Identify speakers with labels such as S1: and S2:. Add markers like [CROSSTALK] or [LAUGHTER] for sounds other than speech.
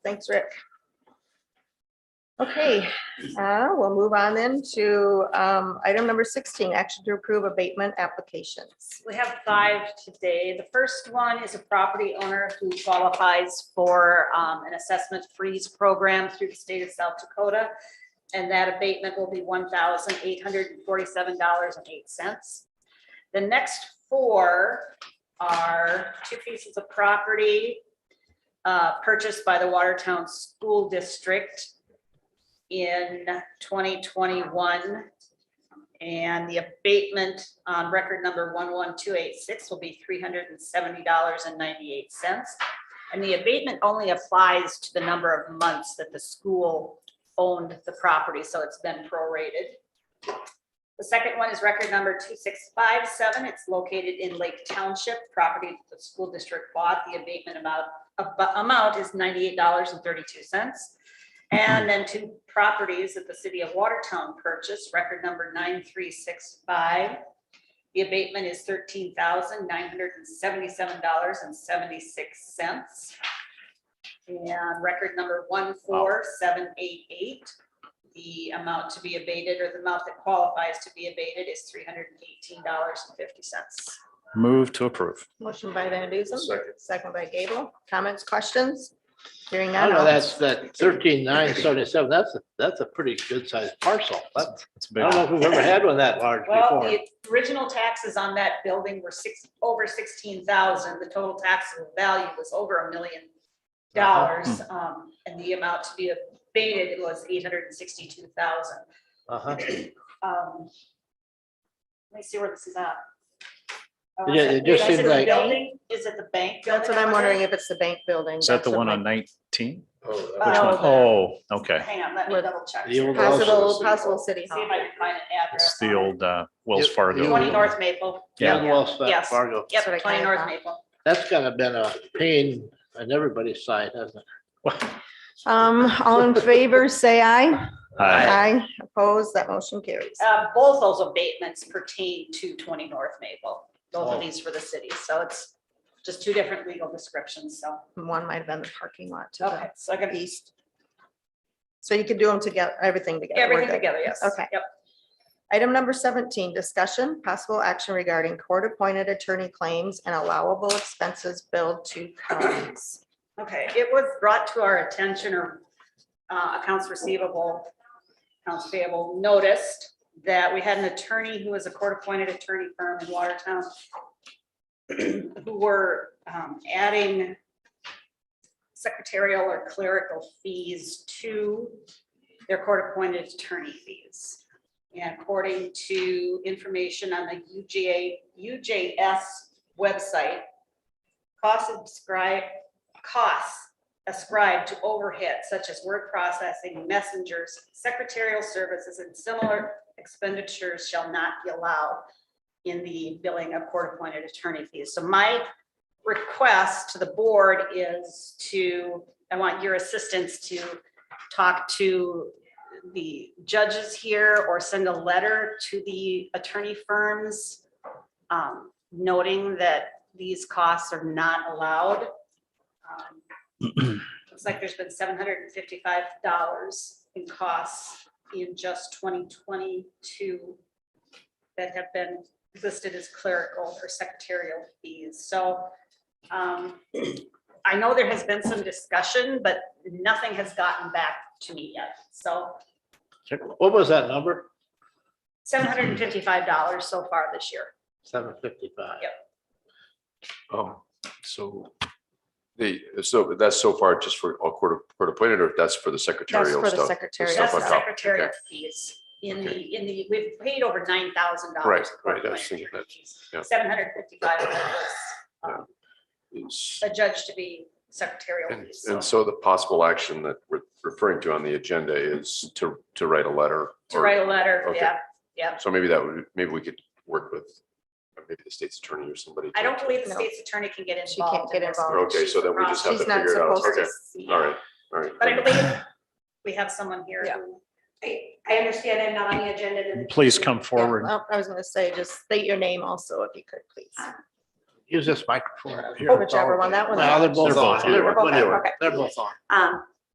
S1: Thanks, Rick. Okay, uh, we'll move on then to um, item number sixteen, action to approve abatement applications.
S2: We have five today. The first one is a property owner who qualifies for um, an assessment freeze program through the state of South Dakota. And that abatement will be one thousand eight hundred and forty-seven dollars and eight cents. The next four are two pieces of property uh, purchased by the Watertown School District in twenty twenty-one. And the abatement on record number one one two eight six will be three hundred and seventy dollars and ninety-eight cents. And the abatement only applies to the number of months that the school owned the property, so it's been prorated. The second one is record number two six five seven. It's located in Lake Township, property that the school district bought. The abatement amount, ab- amount is ninety-eight dollars and thirty-two cents. And then two properties that the city of Watertown purchased, record number nine three six five. The abatement is thirteen thousand nine hundred and seventy-seven dollars and seventy-six cents. And record number one four seven eight eight. The amount to be abated or the amount that qualifies to be abated is three hundred and eighteen dollars and fifty cents.
S3: Move to approve.
S1: Motion by Van Dusen,
S4: Second.
S1: second by Gable. Comments, questions? Hearing
S5: I
S1: none.
S5: know
S1: all-
S5: that's that thirteen nine seventy-seven, that's, a- that's a pretty good sized parcel. Oh, That's,
S3: It's
S5: I
S3: big.
S5: don't know if we've ever had one that large
S2: Well,
S5: before.
S2: the original taxes on that building were six, over sixteen thousand, the total taxable value was over a million
S5: Uh-huh.
S2: dollars,
S5: Hmm.
S2: um, and the amount to be abated was eight hundred and sixty-two thousand.
S5: Uh-huh.
S2: Um, let me see where this is at. Oh,
S5: Yeah,
S2: is
S5: it just
S2: is
S5: seemed
S2: the
S5: like-
S2: building? Is it the bank?
S1: That's what
S2: building?
S1: I'm wondering, if it's the bank building.
S3: Is that the
S1: That's
S3: one
S1: what
S3: on nineteen?
S4: Oh,
S1: Uh,
S3: Which
S2: Oh,
S3: one?
S2: the-
S3: Oh, okay.
S2: Hang on, let me
S1: With
S2: double check.
S5: the
S2: See
S5: old
S1: my-
S2: if
S5: house.
S1: [LAUGHS] Possible, possible city hall.
S2: I can find an address.
S3: It's
S2: on
S3: the
S2: it.
S3: old uh, Wells
S5: Yep.
S3: Fargo.
S2: Twenty North Maple.
S3: Yeah.
S5: Young Wells Fa-
S2: Yes.
S5: Fargo.
S1: That's what I
S2: Yep, twenty
S1: kinda
S2: North
S1: thought.
S2: Maple.
S5: That's gotta been a pain on everybody's side, hasn't it?
S1: Um, all in favor, say aye.
S3: Hi.
S1: Aye, opposed, that motion carries.
S2: Uh, both those abatements pertain to twenty North Maple, both
S5: Oh.
S2: of these for the city, so it's just two different legal descriptions, so.
S1: One might have been the parking lot to
S2: Okay,
S1: the
S2: so I got
S1: east. So you could do them together, everything together. We're
S2: everything
S1: good.
S2: together, yes.
S1: Okay.
S2: Yep,
S1: Item number seventeen, discussion, possible action regarding court-appointed attorney claims and allowable expenses billed to counties.
S2: okay, it was brought to our attention or uh, accounts receivable, accounts payable noticed that we had an attorney who was a court-appointed attorney firm in Watertown [CLEARS THROAT] who were um, adding secretarial or clerical fees to their court-appointed attorney fees. And according to information on the UGA, UJS website, costs ascribed, costs ascribed to overhead such as word processing, messengers, secretarial services, and similar expenditures shall not be allowed in the billing of court-appointed attorney fees. So my request to the board is to, I want your assistance to talk to the judges here or send a letter to the attorney firms um, noting that these costs are not allowed. Um, Looks like there's been seven hundred and fifty-five dollars in costs in just twenty twenty-two that have been listed as clerical or secretarial fees, so. um, [CLEARS THROAT] I know there has been some discussion, but nothing has gotten back to me yet, so
S5: What was that number?
S2: seven hundred and fifty-five dollars so far this year.
S5: Seven fifty-five.
S2: Yep.
S4: Oh, so the, so that's so far just for all court, court appointed or that's for the
S1: That's
S4: secretarial
S1: for the
S4: stuff?
S1: secretarial.
S4: Stuff
S2: That's
S4: on
S2: the
S1: stuff.
S4: top,
S2: secretarial
S4: okay.
S2: fees in
S4: Okay.
S2: the, in the, we've paid over nine thousand dollars.
S4: Right, right, I was thinking that, yeah.
S2: Seven hundred fifty-five was um,
S4: It's-
S2: adjudged to be secretarial
S4: And
S2: fees.
S4: and
S2: so
S4: so the possible action that we're referring to on the agenda is to, to write a letter.
S2: To
S4: or-
S2: write a letter,
S4: okay.
S2: yeah,
S4: So maybe that would, maybe we could work with, or maybe the state's attorney or somebody.
S2: I
S4: to-
S2: don't believe the
S1: No.
S2: state's attorney can get
S1: She can't
S2: involved.
S1: get
S2: in this.
S1: involved.
S4: Okay, so then we just have to
S1: She's not
S4: figure it out.
S1: supposed to
S4: Okay, all right, all right.
S2: But I believe we have someone here
S1: Yeah.
S2: who,
S6: I, I understand I'm not on the agenda. to-
S3: Please come forward.
S1: Well, I was gonna say, just state your name also, if you could, please.
S5: Use this microphone out here.
S1: Whichever one, that one.
S5: No, they're
S3: They're
S5: both
S3: both on.
S5: on. They're
S1: They're both on,
S5: whatever.
S1: okay.
S5: They're both on.
S6: Um,